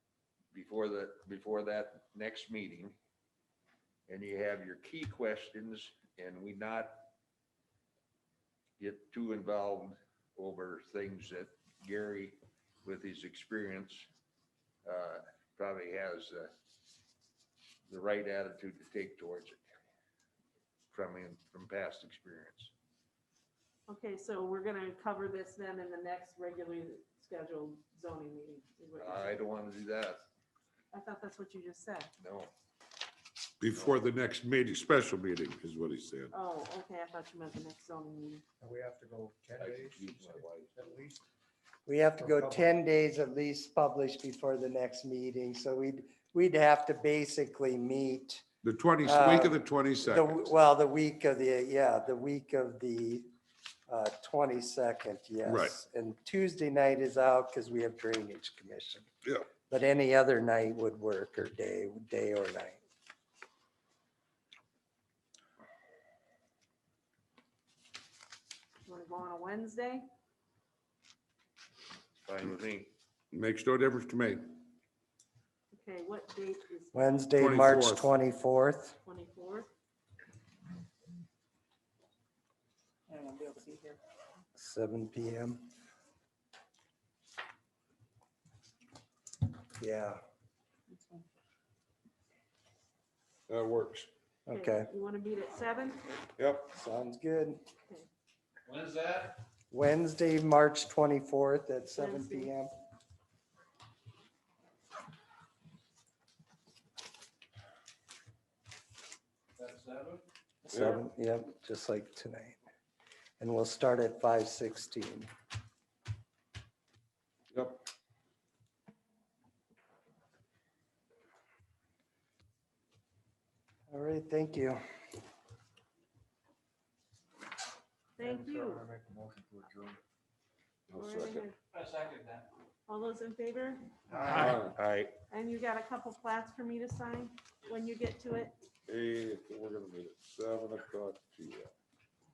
before the, before that next meeting. And you have your key questions and we not get too involved over things that Gary, with his experience, uh, probably has uh, the right attitude to take towards it from, him- from past experience. Okay, so we're gonna cover this then in the next regularly scheduled zoning meeting. is what you're I saying. don't want to do that, I thought that's what you just said. no. Before the next meeting, special meeting is what he said. Oh, okay, I thought you meant the next zoning meeting. And we have to go ten I days you confused my said, wife. at least. We have to Or go public. ten days at least published before the next meeting, so we'd, we'd have to basically meet The twenty, Uh, week of the the, twenty-second. well, the week of the, yeah, the week of the uh, twenty-second, yes. And Tuesday night is out because we have drainage commission. Yeah. But any other night would work or day, day or night. You wanna go on a Wednesday? Fine with me. Makes no difference to me. Okay, what date is Wednesday, March 24th. twenty-fourth. twenty-fourth? I won't be able to be here. Seven PM. Yeah, That works. okay, You wanna meet at seven? Yep. sounds good. When's that? Wednesday, March twenty-fourth at seven Wednesday. PM. That's seven? Seven, yep, just like tonight. And we'll start at five sixteen. Yep. All right, thank you. Thank Madam Chair, you. I make a motion to adjourn. We're in second. here. I second that. All those in favor? All right. And you got a couple plats for me to sign when you get to it? Hey, we're gonna meet at seven o'clock P M.